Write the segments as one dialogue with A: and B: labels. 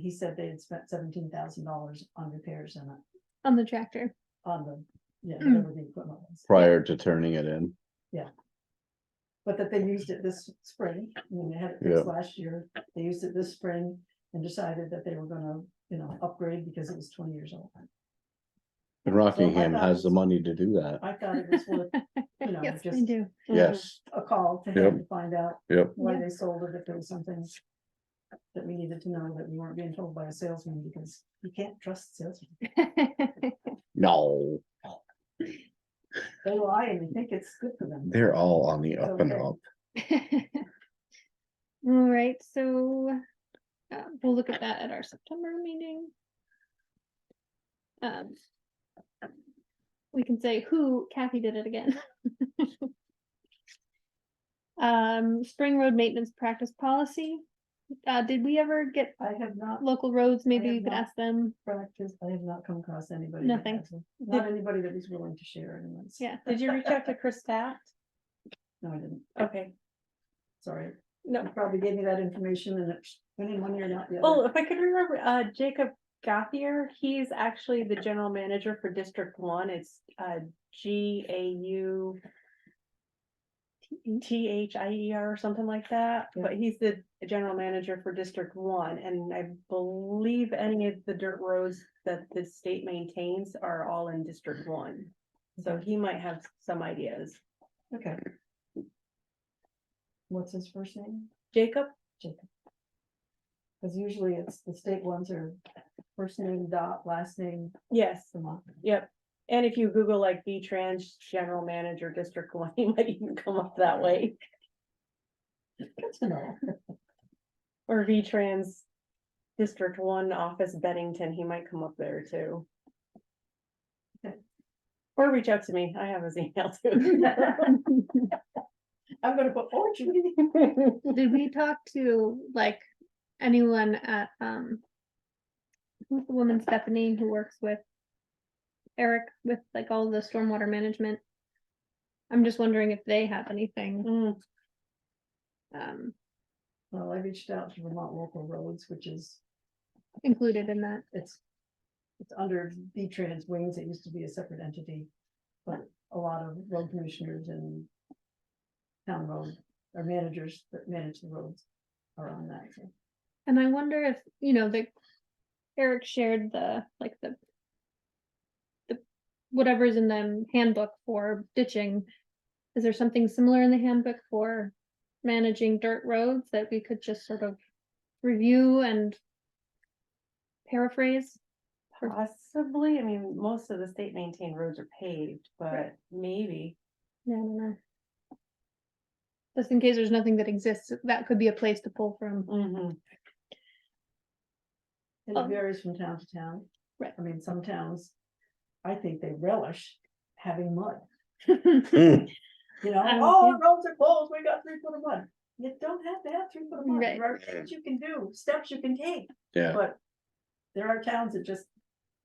A: He said they had spent seventeen thousand dollars on repairs and uh,
B: on the tractor.
A: on the, yeah,
B: Mm.
A: whatever the equipment was.
C: prior to turning it in.
A: But that they used it this spring, I mean, they had it
C: Yeah.
A: fixed last year, they used it this spring and decided that they were gonna, you know, upgrade because it was twenty years old.
C: And Rockingham
A: thought it
C: has the
A: was-
C: money to do that.
A: I thought it was worth You know,
B: Yes, we
A: just-
B: do.
C: Yes,
A: a call to him to find out
C: Yep.
A: why they sold it, if there was something that we needed to know, that we weren't being told by a salesman, because you can't trust salesmen.
C: no,
A: They lie and they think it's good for them.
C: they're all on the up and
A: Okay.
C: up.
B: All right, so uh, we'll look at that at our September meeting. Um, We can say who Kathy did it again. Um, Spring Road Maintenance Practice Policy. Uh, did we ever get
A: I have not
B: local roads? Maybe
A: have
B: you could
A: not.
B: ask them.
A: practiced, I have not come across anybody. that
B: Nothing.
A: has one. Not anybody that was willing to share anyone's.
B: Yeah.
D: Did you reach out to Chris Stat?
A: No, I didn't,
D: Okay,
A: sorry,
D: no,
A: you probably gave me that information and it went in one ear, not the
D: oh,
A: other.
D: if I could remember, uh, Jacob Gothier, he's actually the general manager for District One, it's, uh, G A U. T H I E R or something like that,
A: Yeah.
D: but he's the general manager for District One, and I believe any of the dirt roads that the state maintains are all in District One. So he might have some ideas.
A: Okay. What's his first name?
D: Jacob,
A: Jacob. Cause usually it's the state ones are first name dot, last name
D: yes,
A: Samant.
D: Yep, and if you Google like V-Trans General Manager District One, you might even come up that way,
A: Good to know.
D: or V-Trans District One Office Bennington, he might come up there too.
A: Okay.
D: Or reach out to me, I have his email too.
A: I'm gonna put fortune.
B: Did we talk to like anyone at um? Who's the woman Stephanie who works with? Eric with like all the stormwater management? I'm just wondering if they have anything,
D: Mm,
B: um,
A: Well, I reached out to Vermont Local Roads, which is,
B: included in that.
A: it's. It's under V-Trans wings. It used to be a separate entity. But a lot of road commissioners and. Town road or managers that manage the roads are on that. so.
B: And I wonder if, you know, the Eric shared the, like the the whatever's in the handbook for ditching. Is there something similar in the handbook for managing dirt roads that we could just sort of review and paraphrase?
D: Possibly, I mean, most of the state maintained roads are paved, but
B: Right.
D: maybe,
B: Yeah, I don't know. Just in case there's nothing that exists, that could be a place to pull from.
D: Mhm,
A: And it
B: Um,
A: varies from town to town.
B: Right.
A: I mean, some towns, I think they relish having mud,
C: Mm,
A: you know,
B: Um,
A: oh,
B: yeah.
A: the roads are closed, we got three foot of mud. You don't have to have three foot of mud,
B: Right.
A: there are things you can do, steps you can take,
C: Yeah,
A: but there are towns that just,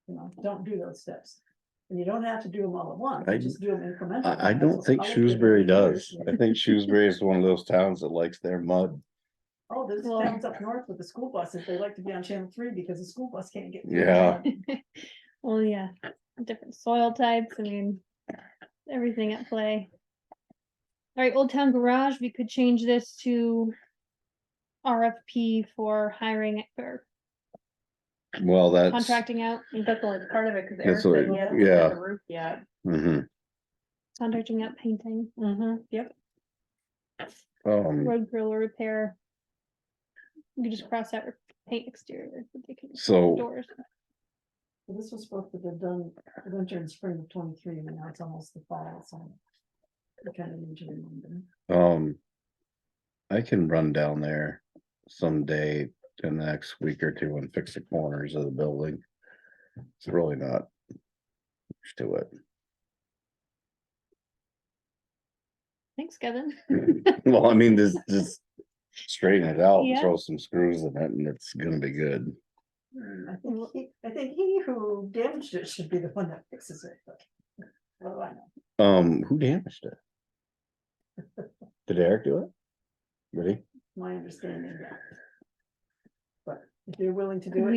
A: you know, don't do those steps. And you don't have to do them all at once,
C: I-
A: you just do them incrementally.
C: I, I
A: That's
C: don't
A: what
C: think
A: I like to do.
C: Shrewsbury does. I think Shrewsbury is one of those towns that likes their mud.
A: Oh, there's
B: Well-
A: towns up north with the school buses, they like to be on channel three because the school bus can't get. through.
C: Yeah.
B: Well, yeah, different soil types, I mean, everything at play. All right, Old Town Garage, we could change this to RFP for hiring or
C: Well, that's,
B: contracting out,
D: I think that's only part of it, cause Eric
C: That's
D: said
A: what-
D: he hasn't
C: yeah.
D: done the roof yet.
C: mhm.
B: contracting out painting,
D: Mm-hmm, yep.
C: um,
B: road grill or repair. You could just cross out re- paint exterior. ridiculous,
C: so
B: Doors,
A: Well, This was supposed to be done winter and spring of twenty-three, and now it's almost the fall, so. I kind of need to remember.
C: Um, I can run down there someday in the next week or two and fix the corners of the building. It's really not much to
B: thanks Kevin.
C: it. Well, I mean, this, just straighten it out, and
B: Yeah.
C: throw some screws in it and it's gonna be good. Hmm.
A: I think he, I think he who damaged it should be the one that fixes it, but. What do I know?
C: Um, who damaged it? Did Eric do it? Really?
A: My understanding. that- But if you're willing to do it.